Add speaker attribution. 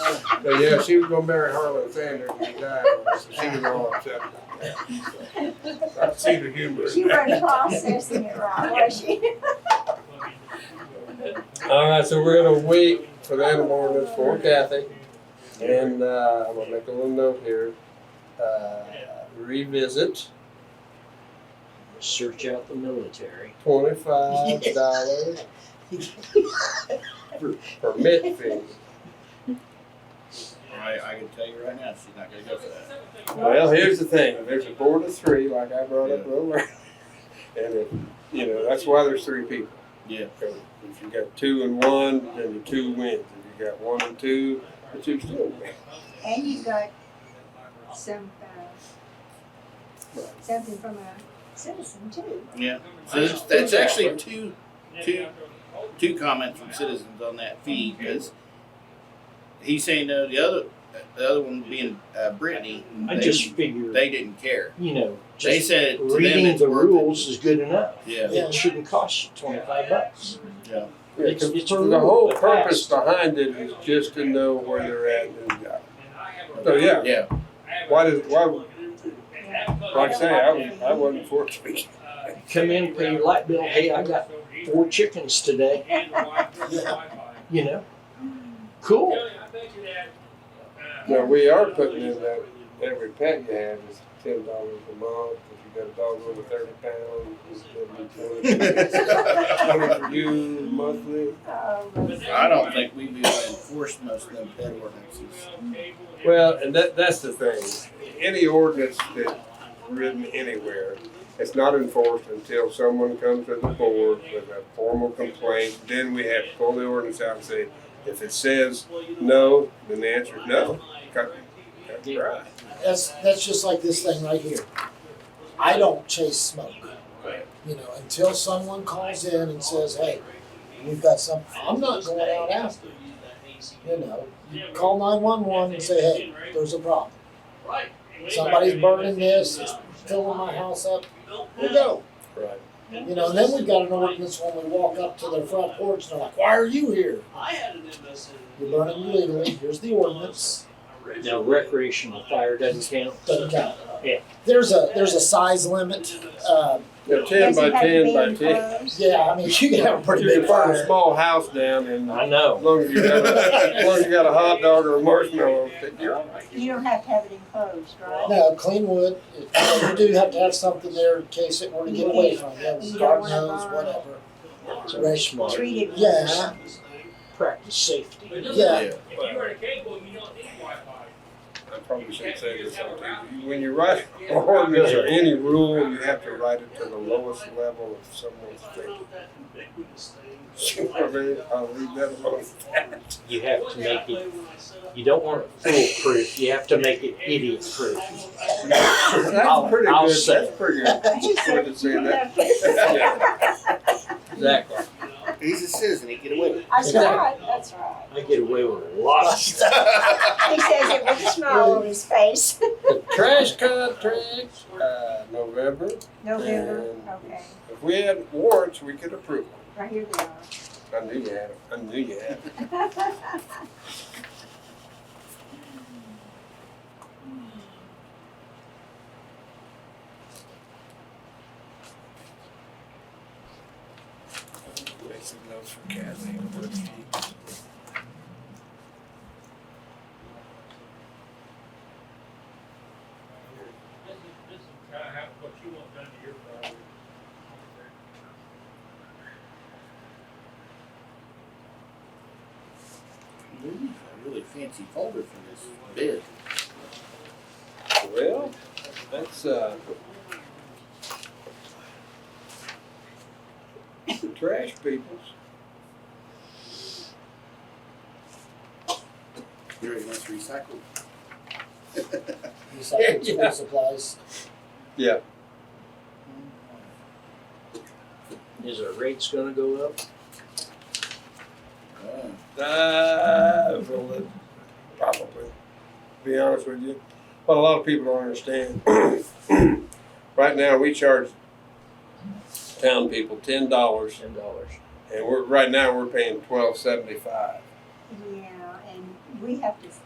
Speaker 1: But yeah, she was gonna marry Harlan Sanders and he died, on us, so she was all upset about that. so. I see the humor
Speaker 2: She
Speaker 1: in
Speaker 2: wasn't
Speaker 1: that.
Speaker 2: processing it right, was she?
Speaker 1: All right, so we're gonna wait for the animal ordinance for Kathy. And, uh, I'm gonna make a little note here, uh, revisit
Speaker 3: Search out the military.
Speaker 1: twenty-five dollars permit fee.
Speaker 4: I, I can tell you right now, she's not gonna go for that.
Speaker 1: Well, here's the thing, if there's a board of three, like I brought up earlier, and if, you know, that's why there's three people.
Speaker 4: Yeah.
Speaker 1: 'Cause If you got two and one, then the two wins, if you got one and two, the two still win.
Speaker 2: And you got some, uh, something from a citizen too.
Speaker 4: Yeah. So that's, that's actually two, two, two comments from citizens on that fee because he's saying no. The other, the other one being uh, Brittany,
Speaker 3: I
Speaker 4: they,
Speaker 3: just figure,
Speaker 4: they didn't care.
Speaker 3: you know,
Speaker 4: They
Speaker 3: just
Speaker 4: said to them
Speaker 3: reading
Speaker 4: it's
Speaker 3: the
Speaker 4: worth it.
Speaker 3: rules is good enough.
Speaker 4: Yeah.
Speaker 3: It shouldn't cost you twenty-five bucks. It's- it's a
Speaker 1: The whole
Speaker 3: rule, but
Speaker 1: purpose
Speaker 3: fast.
Speaker 1: behind it is just to know where they're at and who got it. So, yeah,
Speaker 4: Yeah.
Speaker 1: why does, why, like I say, I, was-
Speaker 2: don't-
Speaker 1: I wasn't for it.
Speaker 3: Come in, pay your light bill, hey, I got four chickens today, you know? Cool.
Speaker 1: Now, we are putting in that every pet you have is ten dollars a month, if you got a dog over thirty pounds, it's gonna be twenty. Coming for you monthly.
Speaker 2: Oh,
Speaker 4: I don't think we'd be able to enforce most of them pet ordinances.
Speaker 1: Well, and that, that's the thing, any ordinance that's written anywhere, it's not enforced until someone comes to the board with a formal complaint, then we have to pull the ordinance out and say, if it says no, then the answer is no. Cut, cut the grass.
Speaker 5: That's, that's just like this thing right here. I don't chase smoke.
Speaker 1: Right.
Speaker 5: You know, until someone calls in and says, hey, we've got some, I'm not going out after it. You know, you call nine-one-one and say, hey, there's a problem. Somebody's burning this, it's filling my house up, we'll go.
Speaker 1: Right.
Speaker 5: You know, and then we've got an ordinance when we walk up to their front porch and they're like, why are you here? You're burning illegally, here's the ordinance,
Speaker 3: Now recreational fire doesn't count.
Speaker 5: doesn't count.
Speaker 3: Yeah.
Speaker 5: There's a, there's a size limit, uh,
Speaker 1: Yeah, ten
Speaker 2: does
Speaker 1: by
Speaker 2: it have to
Speaker 1: ten
Speaker 2: be
Speaker 1: by ten.
Speaker 2: enclosed?
Speaker 5: Yeah, I mean, you can have a pretty
Speaker 1: You
Speaker 5: big
Speaker 1: can put a
Speaker 5: fire.
Speaker 1: small house down and
Speaker 3: I
Speaker 1: as
Speaker 3: know.
Speaker 1: long as you got a, as long as you got a hot dog or a marshmallow, you're all right.
Speaker 2: You don't have to have it enclosed, right?
Speaker 5: No, clean wood, you do have to have something there in case it were to get away from you, garden hose, whatever.
Speaker 3: It's very smart.
Speaker 2: Treated.
Speaker 5: Yeah,
Speaker 3: Practice safety.
Speaker 5: Yeah.
Speaker 6: If you were a cable, you don't need Wi-Fi.
Speaker 1: I probably shouldn't say this on TV. When you write an ordinance or any rule, you have to write it to the lowest level of someone's thinking. You know what I mean? I'll leave that alone.
Speaker 3: You have to make it, you don't want it foolproof, you have to make it idiot proof. I'll-
Speaker 1: That's pretty
Speaker 3: I'll
Speaker 1: good,
Speaker 3: say.
Speaker 1: that's pretty good.
Speaker 2: She
Speaker 1: Good
Speaker 2: said,
Speaker 1: to say
Speaker 2: "You
Speaker 1: that.
Speaker 2: have to-"
Speaker 3: Exactly.
Speaker 4: He's a citizen, he can win.
Speaker 2: That's right, that's right.
Speaker 3: I get away with a lot of stuff.
Speaker 2: He says it with a smile on his face.
Speaker 1: The trash contract, uh, November.
Speaker 2: November, okay,
Speaker 1: If we had warrants, we could approve them.
Speaker 2: right here they are.
Speaker 1: I knew you had them. I knew you had them. Make some notes for Kathy.
Speaker 6: This is, this is kind of what you want done to your property.
Speaker 4: We need a really fancy folder for this bid.
Speaker 1: Well, that's, uh. the Trash peoples.
Speaker 4: Here it wants recycled.
Speaker 5: recycling school supplies.
Speaker 3: Is our rates gonna go up?
Speaker 4: Oh.
Speaker 1: Uh, well, it- probably. To be honest with you, what a lot of people don't understand. right now, we charge town people ten dollars,
Speaker 3: Ten dollars.
Speaker 1: and we're right now we're paying twelve seventy five.
Speaker 2: Yeah, and we have to